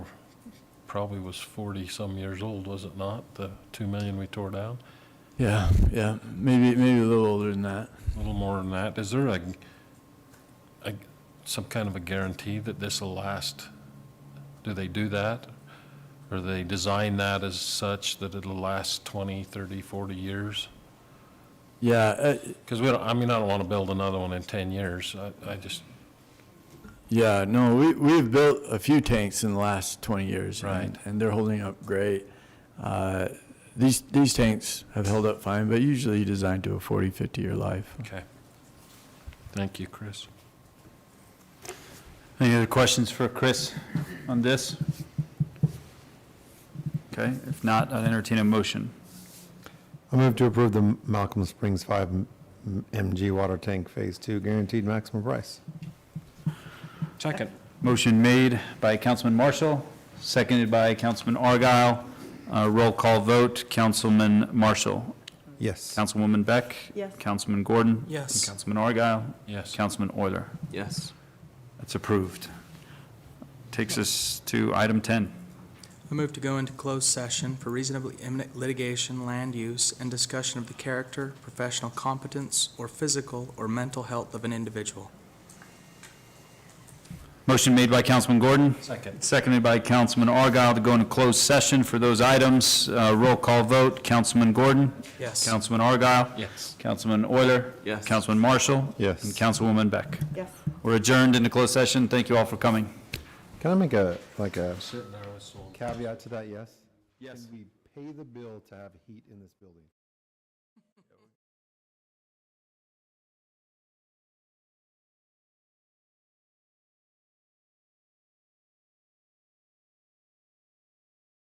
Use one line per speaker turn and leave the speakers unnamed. probably was 40-some years old, was it not? The 2 million we tore down?
Yeah, yeah, maybe, maybe a little older than that.
A little more than that. Is there a, a- some kind of a guarantee that this will last? Do they do that? Or they design that as such that it'll last 20, 30, 40 years?
Yeah, uh,
Because we don't, I mean, I don't want to build another one in 10 years. I, I just,
yeah, no, we, we've built a few tanks in the last 20 years. and-
Right.
And they're holding up great. Uh, These, these tanks have held up fine, but usually you design to a 40, 50-year life.
okay. Thank you, Chris.
Any other questions for Chris on this? Okay, if not, I'll entertain a motion.
I move to approve the Malcolm Springs 5 m- MG Water Tank Phase 2 guaranteed maximum price.
Second.
Motion made by Councilman Marshall, seconded by Councilman Argyle. Uh, Roll call vote, Councilman Marshall.
Yes.
Councilwoman Beck?
Yes.
Councilman Gordon?
Yes.
And Councilman Argyle?
Yes.
Councilman Euler?
Yes.
That's approved. Takes us to item 10.
I move to go into closed session for reasonably imminent litigation, land use, and discussion of the character, professional competence, or physical or mental health of an individual.
Motion made by Councilman Gordon.
Second.
Seconded by Councilman Argyle to go into closed session for those items. Uh, Roll call vote, Councilman Gordon.
Yes.
Councilman Argyle.
Yes.
Councilman Euler.
Yes.
Councilman Marshall.
Yes.
And Councilwoman Beck.
Yes.
We're adjourned into closed session. Thank you all for coming.
Can I make a, like a
Sitting there with someone.
caveat to that, yes?
Yes.
Can we pay the bill to have heat in this building?